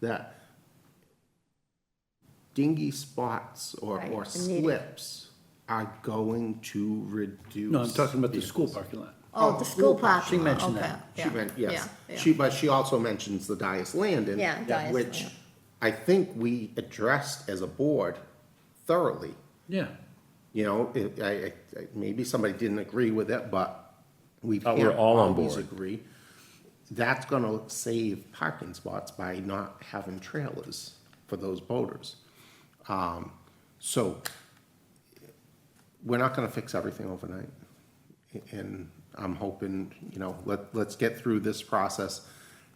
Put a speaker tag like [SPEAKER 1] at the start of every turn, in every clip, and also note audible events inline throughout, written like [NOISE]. [SPEAKER 1] that dingy spots or,
[SPEAKER 2] Right,
[SPEAKER 1] or
[SPEAKER 2] the needing.
[SPEAKER 1] slips are going to reduce.
[SPEAKER 3] No, I'm talking about the
[SPEAKER 1] vehicles.
[SPEAKER 3] school parking lot.
[SPEAKER 2] Oh, the school
[SPEAKER 3] She
[SPEAKER 2] parking lot,
[SPEAKER 3] mentioned
[SPEAKER 2] okay,
[SPEAKER 3] that.
[SPEAKER 1] She meant,
[SPEAKER 2] yeah,
[SPEAKER 1] yes,
[SPEAKER 2] yeah,
[SPEAKER 1] she, but she also mentions the Dias Landon.
[SPEAKER 2] Yeah, Dias
[SPEAKER 1] Which
[SPEAKER 2] Landon.
[SPEAKER 1] I think we addressed as a board thoroughly,
[SPEAKER 3] Yeah.
[SPEAKER 1] you know, it, I, I- I, maybe somebody didn't agree with it, but we
[SPEAKER 4] But we're
[SPEAKER 1] can't
[SPEAKER 4] all on
[SPEAKER 1] always
[SPEAKER 4] board.
[SPEAKER 1] agree. That's gonna save parking spots by not having trailers for those boaters. Um, so we're not gonna fix everything overnight. And I'm hoping, you know, let, let's get through this process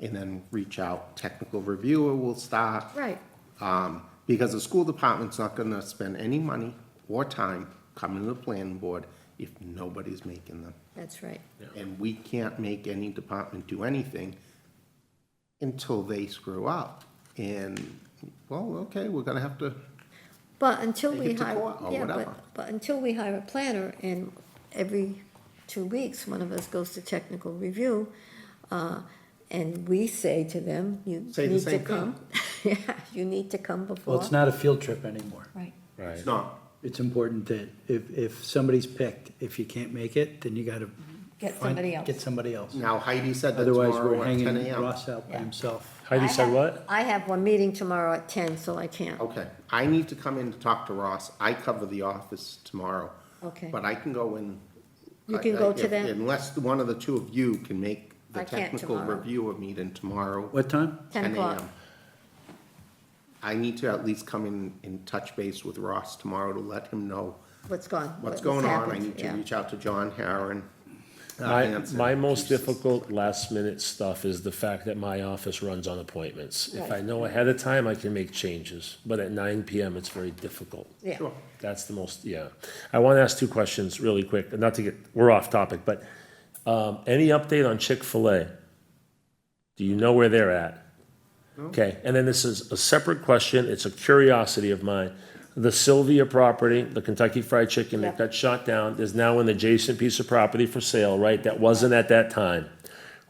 [SPEAKER 1] and then reach out. Technical reviewer will start.
[SPEAKER 2] Right.
[SPEAKER 1] Um, because the school department's not gonna spend any money or time coming to the planning board if nobody's making them.
[SPEAKER 2] that's right.
[SPEAKER 1] And we can't make any department do anything until they screw up. And, well, okay, we're gonna have to,
[SPEAKER 2] But until
[SPEAKER 1] Take
[SPEAKER 2] we
[SPEAKER 1] it to
[SPEAKER 2] hire,
[SPEAKER 1] court or
[SPEAKER 2] yeah,
[SPEAKER 1] Oh, whatever.
[SPEAKER 2] but, but until we hire a planner and every two weeks, one of us goes to technical review, uh, and we say to them, you
[SPEAKER 1] Say the
[SPEAKER 2] need to
[SPEAKER 1] same thing.
[SPEAKER 2] come. [LAUGHS] Yeah, you need to come before.
[SPEAKER 3] Well, it's not a field trip anymore.
[SPEAKER 2] Right.
[SPEAKER 1] it's not,
[SPEAKER 3] It's important that if, if somebody's picked, if you can't make it, then you gotta.
[SPEAKER 2] Get
[SPEAKER 3] find-
[SPEAKER 2] somebody else.
[SPEAKER 3] Get somebody else.
[SPEAKER 1] now Heidi said that
[SPEAKER 3] Otherwise,
[SPEAKER 1] tomorrow
[SPEAKER 3] we're
[SPEAKER 1] at ten
[SPEAKER 3] hanging
[SPEAKER 1] AM.
[SPEAKER 3] Ross out by
[SPEAKER 2] Yeah.
[SPEAKER 3] himself.
[SPEAKER 4] Heidi
[SPEAKER 2] I
[SPEAKER 4] said
[SPEAKER 2] have-
[SPEAKER 4] what?
[SPEAKER 2] I have one meeting tomorrow at ten, so I can't.
[SPEAKER 1] Okay, I need to come in to talk to Ross. I cover the office tomorrow.
[SPEAKER 2] Okay.
[SPEAKER 1] But I can go in.
[SPEAKER 2] You can go to
[SPEAKER 1] If-
[SPEAKER 2] that?
[SPEAKER 1] Unless one of the two of you can make the
[SPEAKER 2] I can't
[SPEAKER 1] technical
[SPEAKER 2] tomorrow.
[SPEAKER 1] reviewer meeting tomorrow.
[SPEAKER 3] What time?
[SPEAKER 2] 10 o'clock.
[SPEAKER 1] a.m.. I need to at least come in and touch base with Ross tomorrow to let him know
[SPEAKER 2] What's gone?
[SPEAKER 1] what's going on. I
[SPEAKER 2] happened,
[SPEAKER 1] need to
[SPEAKER 2] yeah.
[SPEAKER 1] reach out to John Harron. uh,
[SPEAKER 4] My,
[SPEAKER 1] Hanson.
[SPEAKER 4] my most difficult last minute stuff is the fact that my office runs on appointments. If I
[SPEAKER 2] Right.
[SPEAKER 4] know ahead of time, I can make changes, but at nine PM, it's very difficult.
[SPEAKER 2] Yeah.
[SPEAKER 1] Sure.
[SPEAKER 4] That's the most, yeah. I want to ask two questions really quick, not to get, we're off topic, but um, any update on Chick-fil-A? Do you know where they're at? Okay, and then this is a separate question, it's a curiosity of mine. The Sylvia property, the Kentucky Fried Chicken that
[SPEAKER 2] Yeah.
[SPEAKER 4] got shot down, is now an adjacent piece of property for sale, right? That wasn't at that time.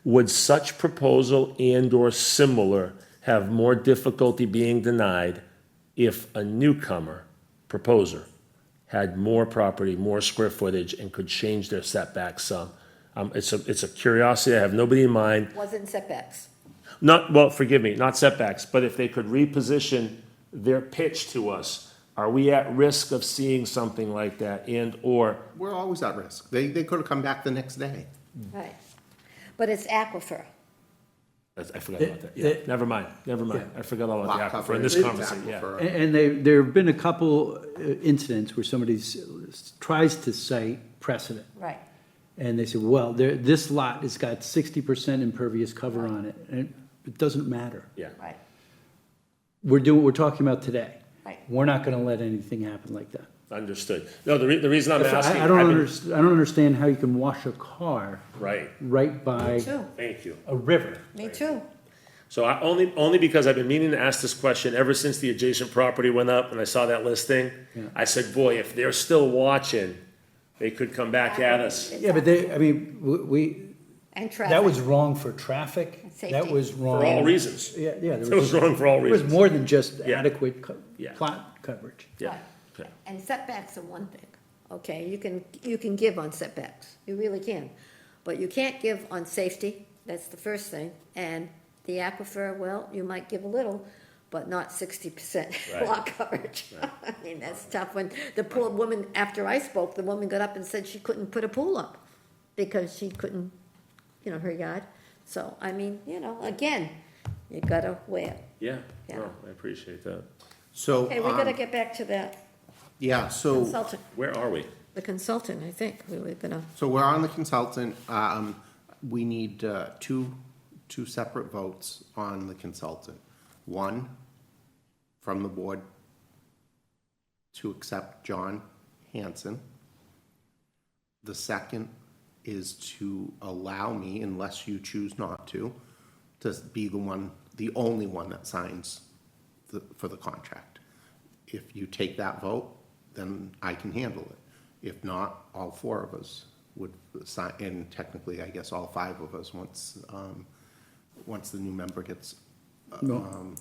[SPEAKER 4] Would such proposal and/or similar have more difficulty being denied if a newcomer proposer had more property, more square footage, and could change their setback some? Um, it's a, it's a curiosity, I have nobody in mind.
[SPEAKER 2] Wasn't setbacks.
[SPEAKER 4] Not, well, forgive me, not setbacks, but if they could reposition their pitch to us, are we at risk of seeing something like that and/or?
[SPEAKER 1] We're always at risk. They, they could have come back the next day.
[SPEAKER 2] Right. But it's aquifer.
[SPEAKER 4] I forgot about that, yeah,
[SPEAKER 3] It- it-
[SPEAKER 4] never mind, never mind, I forgot all
[SPEAKER 1] Lot
[SPEAKER 4] about the aquifer in
[SPEAKER 1] coverage,
[SPEAKER 4] this conversation, yeah.
[SPEAKER 1] aquifer.
[SPEAKER 3] A- And they, there have been a couple uh, incidents where somebody s- tries to cite precedent.
[SPEAKER 2] Right.
[SPEAKER 3] And they said, well, there, this lot has got sixty percent impervious cover on it, and it doesn't matter.
[SPEAKER 4] Yeah,
[SPEAKER 2] Right.
[SPEAKER 3] We're doing, what we're talking about today.
[SPEAKER 2] Right.
[SPEAKER 3] We're not gonna let anything happen like that.
[SPEAKER 4] understood. No, the re, the reason I'm asking.
[SPEAKER 3] I, I don't
[SPEAKER 4] I've been-
[SPEAKER 3] underst, I don't understand how you can wash a car
[SPEAKER 4] Right,
[SPEAKER 3] right by
[SPEAKER 2] Too.
[SPEAKER 4] thank you.
[SPEAKER 3] a river.
[SPEAKER 2] Me too.
[SPEAKER 4] So I, only, only because I've been meaning to ask this question ever since the adjacent property went up and I saw that listing. I said, boy, if they're still watching, they could come back at us.
[SPEAKER 3] Yeah, but they, I mean, w- we,
[SPEAKER 2] And traffic.
[SPEAKER 3] that was wrong for traffic, that
[SPEAKER 2] Safety.
[SPEAKER 3] was wrong.
[SPEAKER 4] For all reasons.
[SPEAKER 3] Yeah, yeah. there
[SPEAKER 4] It was wrong for all
[SPEAKER 3] It was
[SPEAKER 4] reasons.
[SPEAKER 3] more than just
[SPEAKER 4] Yeah.
[SPEAKER 3] adequate co-
[SPEAKER 4] Yeah.
[SPEAKER 3] plot coverage.
[SPEAKER 4] Yeah,
[SPEAKER 2] Right.
[SPEAKER 4] okay.
[SPEAKER 2] And setbacks are one thing, okay, you can, you can give on setbacks, you really can. But you can't give on safety, that's the first thing, and the aquifer, well, you might give a little, but not sixty percent [LAUGHS]
[SPEAKER 4] Right.
[SPEAKER 2] lot coverage. [LAUGHS] I mean, that's tough, when the poor woman, after I spoke, the woman got up and said she couldn't put a pool up because she couldn't, you know, her yard, so, I mean, you know, again, you gotta weigh it.
[SPEAKER 4] Yeah,
[SPEAKER 2] Yeah.
[SPEAKER 4] no, I appreciate that.
[SPEAKER 1] So,
[SPEAKER 2] Okay, we gotta
[SPEAKER 1] um,
[SPEAKER 2] get back to that
[SPEAKER 1] yeah, so.
[SPEAKER 2] consultant.
[SPEAKER 4] Where are we?
[SPEAKER 2] The consultant, I think, we were gonna,
[SPEAKER 1] So we're on the consultant, um, we need, uh, two, two separate votes on the consultant. One, from the board to accept John Hanson. The second is to allow me, unless you choose not to, to be the one, the only one that signs the, for the contract. If you take that vote, then I can handle it. If not, all four of us would sign, and technically, I guess, all five of us, once, um, once the new member gets, uh,
[SPEAKER 3] No.
[SPEAKER 1] um,